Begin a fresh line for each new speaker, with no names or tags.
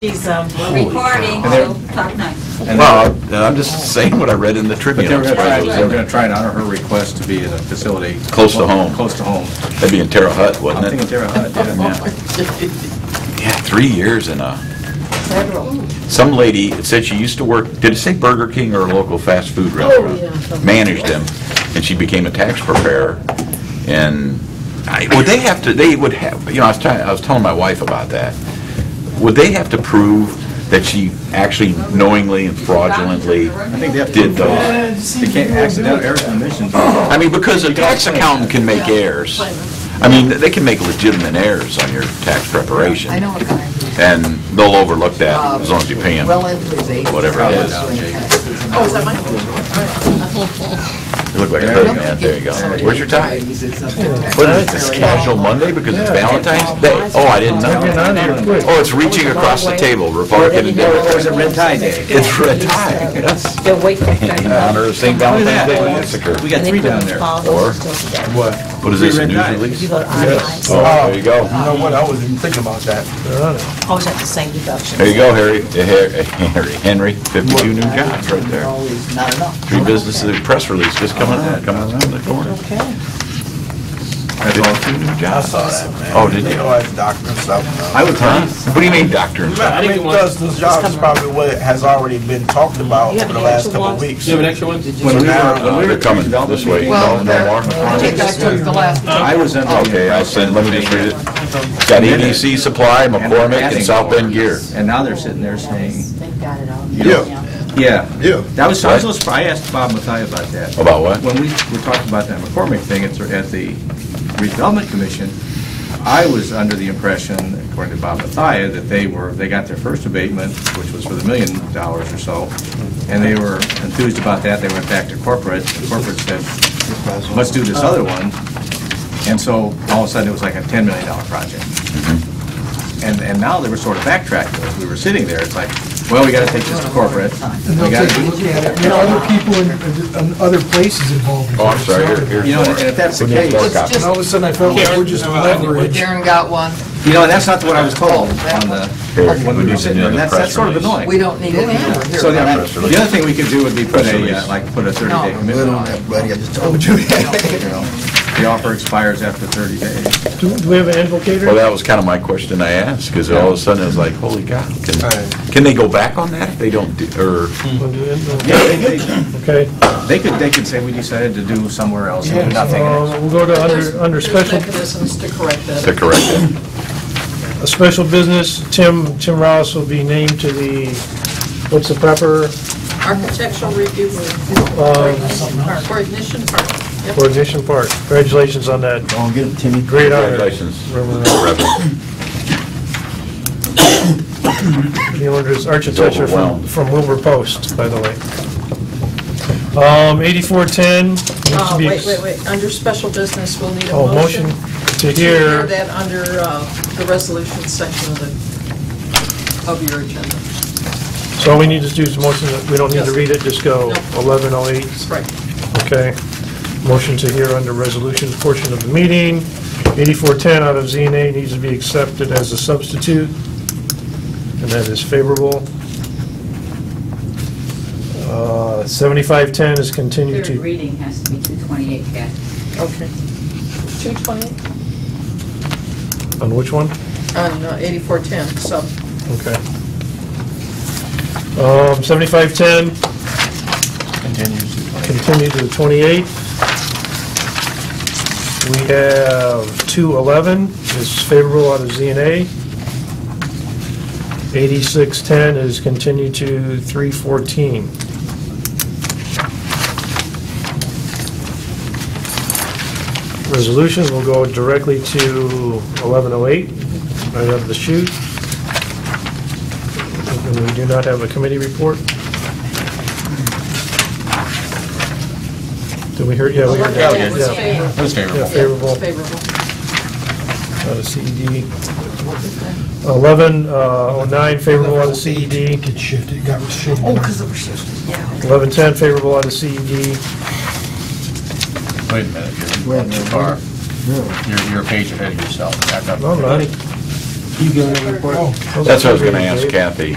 He's um,
recording,
And they're-
so talk nice.
And
Well, I'm just saying what I read in the
But
Tribune.
they were gonna try, they were
That'd
gonna try and honor her request to be in a facility.
Close to home.
Close to home.
be in Terre Haute,
I'm
wouldn't
thinking
it?
Terre Haute, yeah.
Yeah. Yeah, three years in a,
federal.
some lady it said she used to work, did it say Burger King or a local fast food restaurant?
Oh, yeah, something.
Managed them, and she became a tax preparer. And I, would they have to, they would have, you know, I was trying, I was telling my wife about that. Would they have to prove that she actually knowingly and fraudulently
I think they have to.
did those?
They can't accident, errors and omissions.
I mean, because a tax accountant can make errors. I mean, they can make legitimate errors on your tax preparation.
I know what kind.
And they'll overlook that as long as you pay them.
Uh, Well into his eighties.
Whatever it is.
Oh, is that mine?
You look like a hood man. There you go. Where's your tie? What is this, casual Monday because it's Valentine's Day? Oh, I didn't know. Oh, it's reaching across the table, Republican and Democrat.
There's a red tie day.
It's red tie, yes.
They'll wait for
In honor of St. Valentine's Day Massacre.
We got three down there.
Or-
What?
What is this, a news
You
release?
go to itemized.
Oh, there you go.
You know what, I was even thinking about that.
Always have the same deduction.
Oh. There you go, Harry, Eh, Harry, Henry, 52 new jobs right there.
Always not enough.
Three businesses, a press release just coming out, coming out the corner.
Okay.
That's all.
Fifty-two new
I
jobs.
saw that, man.
Oh, did you?
They always doctor and stuff.
I was, huh? What do you mean, doctor? and stuff?
I mean, because this job is probably what has already been talked about
You have
for the
an
last
extra
couple of
one?
weeks.
Do you have an extra one?
When we were- when we
Uh,
were
They're coming this way. No,
Well,
no more?
I think I took the last one.
I was under the
Oh, Okay, I'll
impression.
send, let me just read it. Got EDC Supply, McCormick, and South Bend Gear.
And now they're sitting there saying,
They've got it all.
Yeah.
yeah.
Yeah.
That was, I was,
What?
a little surprised. I asked Bob Mathia about that.
About what?
When we were talking about that McCormick thing at at the redevelopment commission, I was under the impression, according to Bob Mathia, that they were, they got their first abatement, which was for the million dollars or so, and they were enthused about that, they went back to corporate, and corporate said, let's do this other one, and so all of a sudden, it was like a $10 million project. And, and now they were sort of backtracking, As we were sitting there, it's like, well, we gotta take this to corporate, we gotta do
There are other people and- and other places involved. in
Oh, I'm
that,
sorry,
so-
here, here's
You know,
more.
and if that's the
We need more
case-
copies.
And all of a sudden, I felt like we're just leverage.
Darren got one.
You know, that's not what I was told on the, when we were sitting there, and that's, that's sort of
We
annoying.
don't need any more here.
So the other the other thing we could do would be put a, uh, like, put a 30-day commitment on it.
buddy, I just told you.
you know. The offer expires after 30 days.
Do do we have an advocate?
Well, that was kind of my question I asked, because all of a sudden it was like, holy cow. Can,
Right.
can they go back on that if they don't, do- or,
Yeah, they- they-
Okay.
They could, they could say, we decided to do somewhere else, and nothing.
Uh, We'll go to under, under special,
mechanisms to correct
to correct it?
a special business, Tim, Tim Ross will be named to the, what's the proper Uh,
Architectural review coordination
coordination part? Congratulations on that.
Don't get him, Timmy.
Great honor.
Congratulations.
Remember
Reverend.
The owner is architecture from,
overwhelmed.
from Wilbur Post, by the way. Um, 8410. needs to
Uh,
be-
Wait, wait, wait, under special business, we'll need a
Oh, motion
motion. to
to
hear
hear.
that under uh, the resolution section of the, of your agenda.
So all we need to do is motion, that we don't need to read it, just go
No.
1108,
Right.
okay? Motion to hear under resolution portion of the meeting. 8410 out of ZNA needs to be accepted as a substitute, and that is favorable. Uh, 7510 is continued
Third
to,
reading has to be 228, Kathy.
Okay. 220,
on which one?
on uh, 8410, so,
Okay. Um, 7510,
Continues.
continue to the 28th. We have 211 is favorable out of ZNA. 8610 is continued to 314. Resolutions will go directly to 1108, right out of the chute. And we do not have a committee report. Did we hear, yeah, we heard
Yeah, we
that.
did.
Yeah.
That was
Yeah,
favorable.
favorable,
it's favorable.
out of CED. 1109, favorable out of CED.
Get shifted, got shifted.
1110, favorable out of CED.
Wait a
Oh,
minute, you're too far. You're, you're a page ahead of yourself. Back up.
No, I'm not.
You give them a report?
That's what I was going to ask Kathy.